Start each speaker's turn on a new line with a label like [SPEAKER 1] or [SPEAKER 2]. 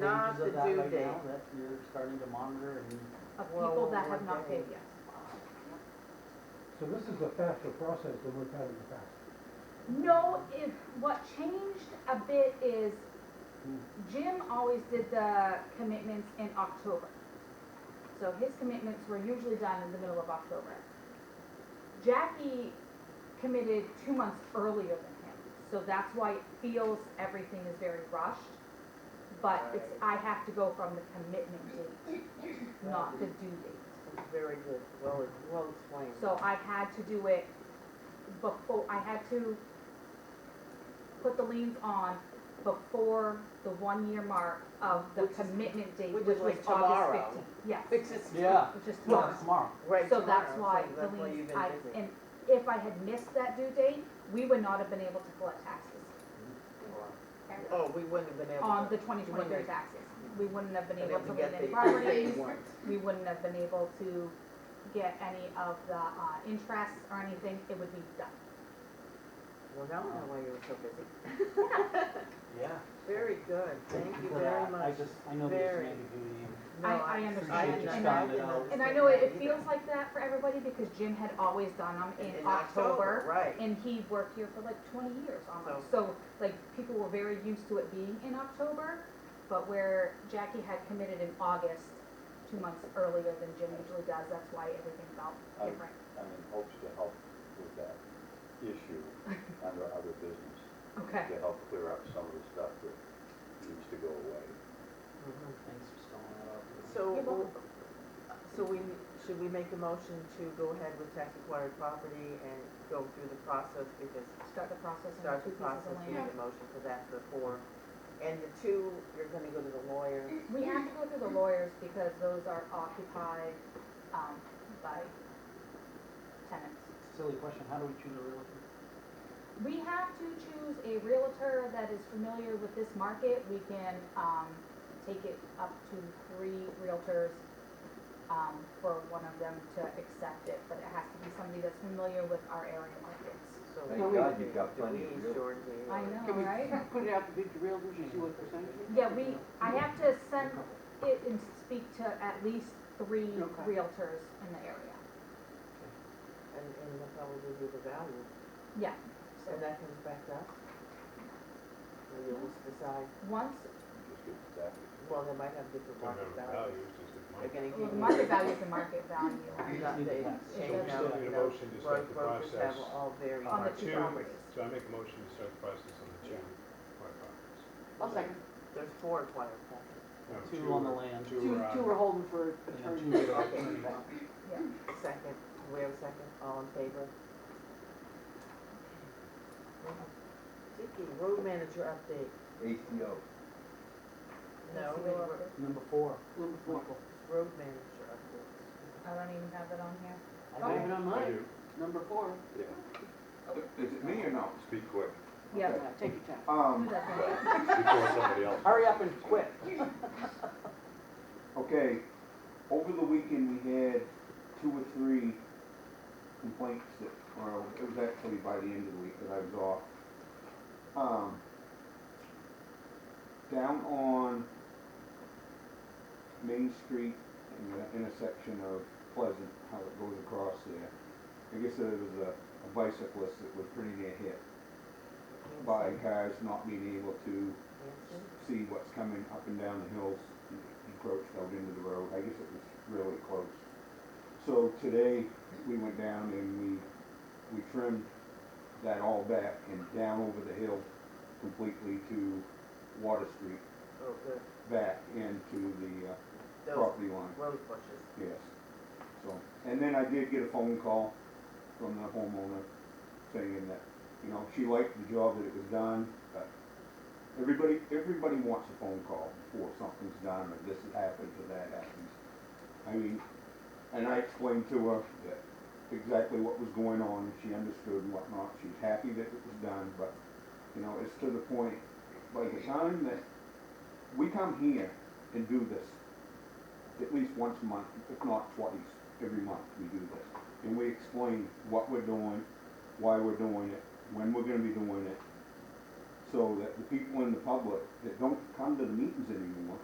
[SPEAKER 1] not
[SPEAKER 2] stages
[SPEAKER 1] the
[SPEAKER 2] of that
[SPEAKER 1] due
[SPEAKER 2] right now,
[SPEAKER 1] date.
[SPEAKER 2] that you're starting to monitor and,
[SPEAKER 1] of
[SPEAKER 3] Well,
[SPEAKER 1] people that have
[SPEAKER 3] we're
[SPEAKER 1] not paid
[SPEAKER 3] getting-
[SPEAKER 1] yet.
[SPEAKER 4] So this is a faster process than we've had in the past.
[SPEAKER 5] No, if, what changed a bit is Jim always did the commitments in October. So his commitments were usually done in the middle of October. Jackie committed two months earlier than him, so that's why it feels everything is very rushed. But it's, I have to go from the commitment date, not the due date.
[SPEAKER 3] Very good, well, well explained.
[SPEAKER 5] So I had to do it before, I had to put the liens on before the one-year mark of the
[SPEAKER 3] Which is-
[SPEAKER 5] commitment date,
[SPEAKER 3] which
[SPEAKER 5] which
[SPEAKER 3] is
[SPEAKER 5] was
[SPEAKER 3] like
[SPEAKER 5] August
[SPEAKER 3] tomorrow.
[SPEAKER 5] fifteenth. Yes,
[SPEAKER 3] Which is.
[SPEAKER 2] yeah,
[SPEAKER 5] which is
[SPEAKER 2] well,
[SPEAKER 5] tomorrow.
[SPEAKER 2] tomorrow.
[SPEAKER 3] Right
[SPEAKER 5] So that's why
[SPEAKER 3] tomorrow, so that's
[SPEAKER 5] the
[SPEAKER 3] why you've
[SPEAKER 5] liens,
[SPEAKER 3] been
[SPEAKER 5] I,
[SPEAKER 3] busy.
[SPEAKER 5] and if I had missed that due date, we would not have been able to collect taxes. okay?
[SPEAKER 3] Oh, we wouldn't have been able to.
[SPEAKER 5] On the twenty twenty-three
[SPEAKER 3] wouldn't-
[SPEAKER 5] taxes. We wouldn't have been
[SPEAKER 3] been
[SPEAKER 5] able
[SPEAKER 3] able
[SPEAKER 5] to
[SPEAKER 3] to get
[SPEAKER 5] lien
[SPEAKER 3] the
[SPEAKER 5] any
[SPEAKER 3] property
[SPEAKER 5] properties.
[SPEAKER 3] ones.
[SPEAKER 5] we wouldn't have been able to get any of the uh, interests or anything, it would be done.
[SPEAKER 3] Well, now I know why you were so busy.
[SPEAKER 2] Yeah.
[SPEAKER 3] Very good, thank you
[SPEAKER 2] for
[SPEAKER 3] very
[SPEAKER 2] that.
[SPEAKER 3] much.
[SPEAKER 2] I just, I know there's
[SPEAKER 3] Very.
[SPEAKER 2] some ambiguity. and-
[SPEAKER 3] No,
[SPEAKER 5] I- I
[SPEAKER 3] appreciate
[SPEAKER 5] understand.
[SPEAKER 3] you trying to
[SPEAKER 2] I-
[SPEAKER 5] And
[SPEAKER 2] and I-
[SPEAKER 3] understand
[SPEAKER 5] And I know it,
[SPEAKER 3] that
[SPEAKER 5] it
[SPEAKER 3] either.
[SPEAKER 5] feels like that for everybody because Jim had always done them
[SPEAKER 3] In-
[SPEAKER 5] in
[SPEAKER 3] in October,
[SPEAKER 5] October.
[SPEAKER 3] right.
[SPEAKER 5] And he worked here for like twenty years almost. So like people were very used to it being in October, but where Jackie had committed in August, two months earlier than Jim usually does, that's why everything felt
[SPEAKER 6] I-
[SPEAKER 5] different.
[SPEAKER 6] I'm in hopes to help with that issue under other business,
[SPEAKER 5] Okay.
[SPEAKER 6] to help clear up some of the stuff that needs to go away.
[SPEAKER 3] Mhm.
[SPEAKER 2] Thanks for spelling that out.
[SPEAKER 3] So,
[SPEAKER 5] You're
[SPEAKER 3] we'll-
[SPEAKER 5] welcome.
[SPEAKER 3] so we, should we make a motion to go ahead with tax acquired property and go through the process because
[SPEAKER 5] Start the process on the
[SPEAKER 3] start
[SPEAKER 5] two
[SPEAKER 3] the
[SPEAKER 5] pieces
[SPEAKER 3] process,
[SPEAKER 5] of
[SPEAKER 3] we
[SPEAKER 5] land.
[SPEAKER 3] need a motion for that before. And the two, you're gonna go to the lawyer.
[SPEAKER 5] We have to go through the lawyers because those are occupied, um, by tenants.
[SPEAKER 2] Silly question, how do we choose a realtor?
[SPEAKER 5] We have to choose a realtor that is familiar with this market. We can, um, take it up to three realtors, um, for one of them to accept it, but it has to be somebody that's familiar with our area markets.
[SPEAKER 3] So
[SPEAKER 6] Thank
[SPEAKER 3] we-
[SPEAKER 6] God you've got plenty of
[SPEAKER 3] Louise,
[SPEAKER 6] real-
[SPEAKER 3] Jordan,
[SPEAKER 5] I
[SPEAKER 3] Leland.
[SPEAKER 5] know,
[SPEAKER 7] Can we
[SPEAKER 5] right?
[SPEAKER 7] put it out to bid to realtors and see what percentage?
[SPEAKER 5] Yeah, we, I have to send it and speak to at least three
[SPEAKER 7] Okay.
[SPEAKER 5] realtors in the area.
[SPEAKER 3] And, and they'll probably do the value,
[SPEAKER 5] Yeah, so.
[SPEAKER 3] and that comes back to us. We will just decide,
[SPEAKER 5] Once,
[SPEAKER 6] Just get exactly.
[SPEAKER 3] well, they might have different market values. They're gonna give
[SPEAKER 5] well, the
[SPEAKER 3] you-
[SPEAKER 5] market value is the market value
[SPEAKER 3] Not
[SPEAKER 2] Need
[SPEAKER 3] they
[SPEAKER 2] that.
[SPEAKER 3] change
[SPEAKER 5] So we
[SPEAKER 3] out,
[SPEAKER 5] still
[SPEAKER 3] you
[SPEAKER 8] need a
[SPEAKER 3] know,
[SPEAKER 8] motion to
[SPEAKER 3] bro-
[SPEAKER 8] start the
[SPEAKER 3] brokers have
[SPEAKER 8] process
[SPEAKER 3] all very.
[SPEAKER 5] on the
[SPEAKER 8] Alright,
[SPEAKER 5] two
[SPEAKER 8] two.
[SPEAKER 5] properties.
[SPEAKER 8] So I make a motion to start the process on the two acquired properties.
[SPEAKER 7] I'll second.
[SPEAKER 3] There's four acquired properties.
[SPEAKER 8] No,
[SPEAKER 2] Two on the
[SPEAKER 8] are-
[SPEAKER 2] land.
[SPEAKER 8] Two
[SPEAKER 7] Two,
[SPEAKER 8] are,
[SPEAKER 7] two
[SPEAKER 8] uh,
[SPEAKER 7] are holding for
[SPEAKER 2] and then
[SPEAKER 7] attorney.
[SPEAKER 2] two that are-
[SPEAKER 3] Second, we have a second, all in favor? Dicky, road manager update.
[SPEAKER 6] ATO.
[SPEAKER 3] No,
[SPEAKER 5] Let's see
[SPEAKER 3] we
[SPEAKER 5] what-
[SPEAKER 3] were-
[SPEAKER 2] Number four,
[SPEAKER 7] Number four.
[SPEAKER 2] Michael.
[SPEAKER 3] road manager update.
[SPEAKER 5] I don't even have it on here.
[SPEAKER 7] I have it on
[SPEAKER 8] I
[SPEAKER 7] mine,
[SPEAKER 8] do.
[SPEAKER 7] number four.
[SPEAKER 6] Yeah. Is it me or no? Speak quick.
[SPEAKER 5] Yeah.
[SPEAKER 7] Yeah, Take your time.
[SPEAKER 6] Um,
[SPEAKER 5] Definitely.
[SPEAKER 6] before somebody else.
[SPEAKER 2] Hurry up and quit.
[SPEAKER 6] Okay, over the weekend, we had two or three complaints that, or it was actually by the end of the week that I was off. Um, down on Main Street in the intersection of Pleasant, how it goes across there. I guess there was a, a bicyclist that was pretty near hit by cars not being able to
[SPEAKER 3] Hanson?
[SPEAKER 6] see what's coming up and down the hills and encroached out into the road. I guess it was really close. So today, we went down and we, we trimmed that all back and down over the hill completely to Water Street,
[SPEAKER 3] Oh, good,
[SPEAKER 6] back into the uh,
[SPEAKER 3] those
[SPEAKER 6] property line.
[SPEAKER 3] rose bushes.
[SPEAKER 6] Yes. So, and then I did get a phone call from the homeowner saying that, you know, she liked the job that it was done, but everybody, everybody wants a phone call before something's done, or this happens or that happens. I mean, and I explained to her that exactly what was going on, she understood and whatnot, she's happy that it was done, but, you know, it's to the point, by the time that we come here and do this, at least once a month, if not twice, every month we do this. And we explain what we're doing, why we're doing it, when we're gonna be doing it, so that the people in the public that don't come to the meetings anymore